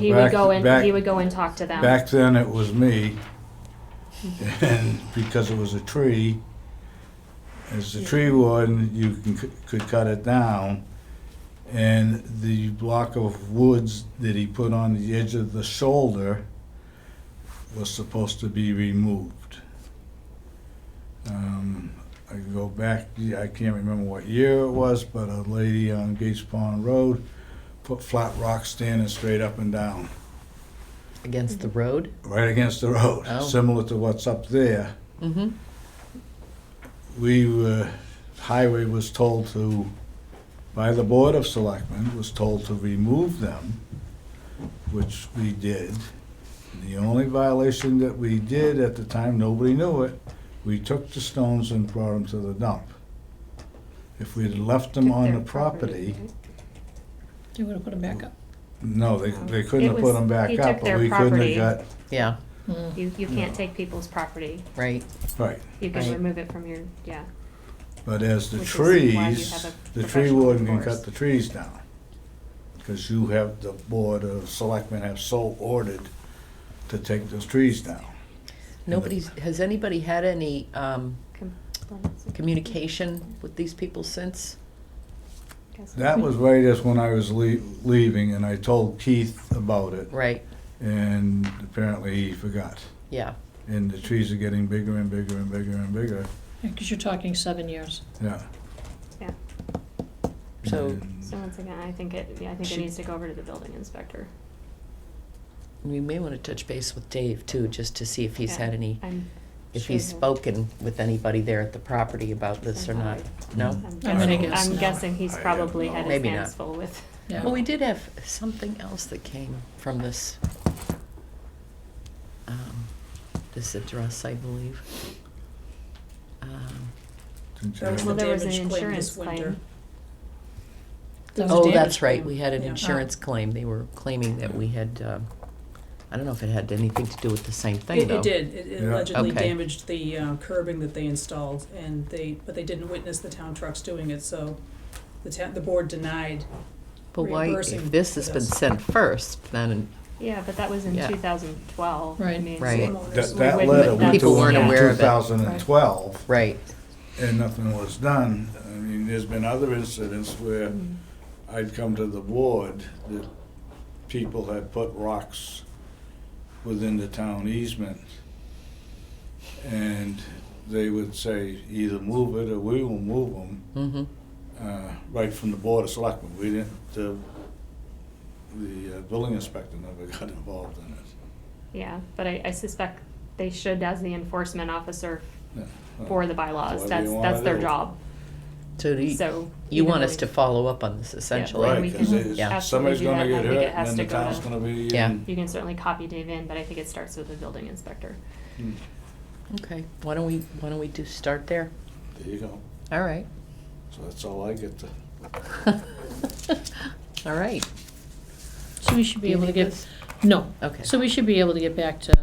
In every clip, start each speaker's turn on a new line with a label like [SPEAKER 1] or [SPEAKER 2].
[SPEAKER 1] He would
[SPEAKER 2] Back-
[SPEAKER 1] go and,
[SPEAKER 2] back-
[SPEAKER 1] he would go and talk to them.
[SPEAKER 2] Back then, it was me, and because it was a tree, as the tree warden, you can, could cut it down. And the block of woods that he put on the edge of the shoulder was supposed to be removed. Um, I can go back, I can't remember what year it was, but a lady on Gates Pond Road put flat rocks standing straight up and down
[SPEAKER 3] Against the road?
[SPEAKER 2] right against the road,
[SPEAKER 3] Oh.
[SPEAKER 2] similar to what's up there.
[SPEAKER 3] Mm-hmm.
[SPEAKER 2] We were, highway was told to, by the Board of Selectmen, was told to remove them, which we did. The only violation that we did at the time, nobody knew it, we took the stones and brought them to the dump. If we'd left them
[SPEAKER 1] Took
[SPEAKER 2] on
[SPEAKER 1] their
[SPEAKER 2] the property,
[SPEAKER 4] You would have put them back up.
[SPEAKER 2] no, they, they couldn't
[SPEAKER 1] It
[SPEAKER 2] have
[SPEAKER 1] was-
[SPEAKER 2] put
[SPEAKER 1] he
[SPEAKER 2] them back
[SPEAKER 1] took
[SPEAKER 2] up,
[SPEAKER 1] their
[SPEAKER 2] but we couldn't
[SPEAKER 1] property.
[SPEAKER 2] have got,
[SPEAKER 3] Yeah, Mm-hmm.
[SPEAKER 1] You, you can't take people's property.
[SPEAKER 3] right.
[SPEAKER 2] right.
[SPEAKER 1] You can
[SPEAKER 3] Right.
[SPEAKER 1] remove it from your, yeah.
[SPEAKER 2] But as the
[SPEAKER 1] Which is why you
[SPEAKER 2] trees,
[SPEAKER 1] have a
[SPEAKER 2] the tree
[SPEAKER 1] professional
[SPEAKER 2] warden can
[SPEAKER 1] forest.
[SPEAKER 2] cut the trees down. Because you have, the board of selectmen have so ordered to take those trees down.
[SPEAKER 3] Nobody's, has anybody had any um,
[SPEAKER 1] Complaints, I
[SPEAKER 3] communication with these people since?
[SPEAKER 1] guess.
[SPEAKER 2] That was right as when I was lea- leaving and I told Keith about it
[SPEAKER 3] Right,
[SPEAKER 2] and apparently he forgot.
[SPEAKER 3] yeah.
[SPEAKER 2] And the trees are getting bigger and bigger and bigger and bigger,
[SPEAKER 4] Because you're talking seven years.
[SPEAKER 2] yeah.
[SPEAKER 1] Yeah.
[SPEAKER 3] So-
[SPEAKER 2] And-
[SPEAKER 1] So once again, I think it, yeah, I think it
[SPEAKER 3] Should-
[SPEAKER 1] needs to go over to the building inspector.
[SPEAKER 3] We may want to touch base with Dave too, just to see if he's
[SPEAKER 1] Yeah.
[SPEAKER 3] had any,
[SPEAKER 1] I'm
[SPEAKER 3] if
[SPEAKER 1] sure
[SPEAKER 3] he's
[SPEAKER 1] he'll-
[SPEAKER 3] spoken with anybody there at the property about this or not. No?
[SPEAKER 1] I'm
[SPEAKER 4] I'm gonna
[SPEAKER 1] guessing,
[SPEAKER 4] guess
[SPEAKER 1] I'm
[SPEAKER 4] no.
[SPEAKER 1] guessing he's
[SPEAKER 2] I have
[SPEAKER 1] probably had
[SPEAKER 2] no-
[SPEAKER 1] his
[SPEAKER 3] Maybe not.
[SPEAKER 1] hands full with.
[SPEAKER 4] Yeah.
[SPEAKER 3] Well, we did have something else that came from this, um, this address, I believe. Um,
[SPEAKER 2] Didn't you
[SPEAKER 5] That was
[SPEAKER 1] Well,
[SPEAKER 2] have-
[SPEAKER 5] the
[SPEAKER 1] there was an
[SPEAKER 5] damage claim
[SPEAKER 1] insurance
[SPEAKER 5] this winter.
[SPEAKER 1] claim.
[SPEAKER 4] That was a
[SPEAKER 3] Oh,
[SPEAKER 4] damage
[SPEAKER 3] that's
[SPEAKER 4] claim.
[SPEAKER 3] right, we had an
[SPEAKER 5] Yeah.
[SPEAKER 3] insurance claim, they were claiming that we had, um, I don't know if it had anything to do with the same thing,
[SPEAKER 5] It,
[SPEAKER 3] though.
[SPEAKER 5] it did, It- it
[SPEAKER 2] Yeah.
[SPEAKER 5] allegedly
[SPEAKER 3] Okay.
[SPEAKER 5] damaged the uh, curbing that they installed, and they, but they didn't witness the town trucks doing it, so the town, the board denied.
[SPEAKER 3] But why, if
[SPEAKER 5] reimbursing
[SPEAKER 3] this
[SPEAKER 5] for
[SPEAKER 3] has been
[SPEAKER 5] this.
[SPEAKER 3] sent first, then
[SPEAKER 1] Yeah, but that was in
[SPEAKER 3] Yeah.
[SPEAKER 1] two thousand twelve.
[SPEAKER 4] Right.
[SPEAKER 3] Right.
[SPEAKER 2] That,
[SPEAKER 5] homeowners.
[SPEAKER 2] that
[SPEAKER 1] When-
[SPEAKER 2] letter
[SPEAKER 1] when
[SPEAKER 2] went
[SPEAKER 1] people
[SPEAKER 2] to him
[SPEAKER 1] weren't
[SPEAKER 2] in
[SPEAKER 3] aware of it.
[SPEAKER 2] 2012.
[SPEAKER 3] Right,
[SPEAKER 2] and nothing was done. I mean, there's been other incidents where
[SPEAKER 1] Mm-hmm.
[SPEAKER 2] I'd come to the board that people had put rocks within the town easement. And they would say, either move it or we will move them,
[SPEAKER 3] mm-hmm,
[SPEAKER 2] uh, right from the board of selectmen. We didn't, the, the uh, building inspector never got involved in it.
[SPEAKER 1] Yeah, but I, I suspect they should as the enforcement officer
[SPEAKER 2] Yeah.
[SPEAKER 1] for the bylaws.
[SPEAKER 2] Whatever
[SPEAKER 1] That's,
[SPEAKER 2] you wanna
[SPEAKER 1] that's their
[SPEAKER 2] do.
[SPEAKER 1] job,
[SPEAKER 3] so do you,
[SPEAKER 1] so.
[SPEAKER 3] you
[SPEAKER 1] even
[SPEAKER 3] want
[SPEAKER 1] though
[SPEAKER 3] us
[SPEAKER 1] we-
[SPEAKER 3] to follow up on this
[SPEAKER 1] Right,
[SPEAKER 3] essentially?
[SPEAKER 1] we
[SPEAKER 2] Right, because
[SPEAKER 1] can
[SPEAKER 2] it's-
[SPEAKER 3] absolutely
[SPEAKER 2] somebody's
[SPEAKER 1] do
[SPEAKER 2] gonna
[SPEAKER 1] that. I
[SPEAKER 2] get
[SPEAKER 1] think it
[SPEAKER 2] hurt and
[SPEAKER 1] has
[SPEAKER 2] then
[SPEAKER 1] to
[SPEAKER 2] the
[SPEAKER 1] go to-
[SPEAKER 2] town's gonna be in.
[SPEAKER 3] Yeah.
[SPEAKER 1] You can certainly copy Dave in, but I think it starts with the building inspector.
[SPEAKER 2] Mm,
[SPEAKER 3] Okay, why don't we, why don't we do, start there?
[SPEAKER 2] There you go.
[SPEAKER 3] All right.
[SPEAKER 2] So that's all I get to.
[SPEAKER 3] All right.
[SPEAKER 4] So we should
[SPEAKER 3] Do
[SPEAKER 4] be
[SPEAKER 3] you
[SPEAKER 4] able to
[SPEAKER 3] need
[SPEAKER 4] get,
[SPEAKER 3] this?
[SPEAKER 4] no.
[SPEAKER 3] Okay.
[SPEAKER 4] So we should be able to get back to,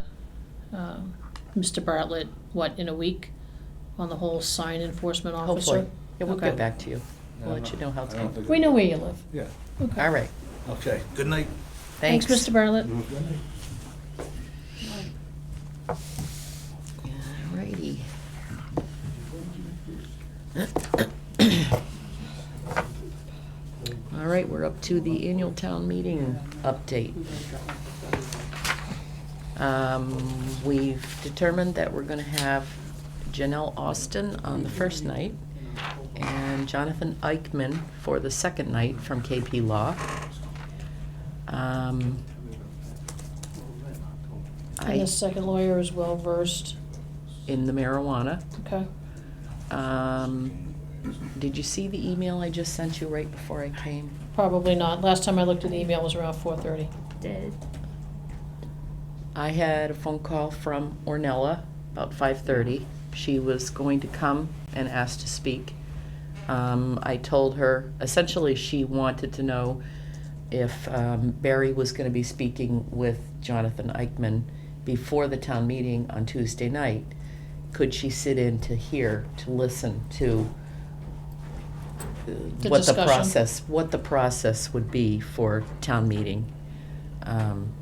[SPEAKER 4] um, Mr. Bartlett, what, in a week? On the whole sign enforcement officer?
[SPEAKER 3] Hopefully. Yeah, we'll
[SPEAKER 4] Okay.
[SPEAKER 3] get back to you. We'll let you know how it's
[SPEAKER 2] I don't
[SPEAKER 3] going.
[SPEAKER 2] think
[SPEAKER 4] We
[SPEAKER 2] it-
[SPEAKER 4] know where you live.
[SPEAKER 2] Yeah,
[SPEAKER 4] Okay.
[SPEAKER 3] All right,
[SPEAKER 2] okay, good night.
[SPEAKER 3] thanks.
[SPEAKER 4] Mr. Bartlett.
[SPEAKER 2] Mm-hmm.
[SPEAKER 3] All righty. All right, we're up to the annual town meeting update. Um, We've determined that we're gonna have Janelle Austin on the first night and Jonathan Eichman for the second night from KP Law. Um,
[SPEAKER 4] And
[SPEAKER 3] I,
[SPEAKER 4] the second lawyer is well versed,
[SPEAKER 3] in the marijuana.
[SPEAKER 4] okay?
[SPEAKER 3] Um, did you see the email I just sent you right before I came?
[SPEAKER 4] Probably not. Last time I looked at the email was around four thirty.
[SPEAKER 1] Did,
[SPEAKER 3] I had a phone call from Ornella about five thirty. She was going to come and asked to speak. Um, I told her essentially she wanted to know if um, Barry was going to be speaking with Jonathan Eichman before the town meeting on Tuesday night. Could she sit in to hear to listen to uh,
[SPEAKER 4] The
[SPEAKER 3] what the
[SPEAKER 4] discussion.
[SPEAKER 3] process what the process would be for town meeting? Um, um,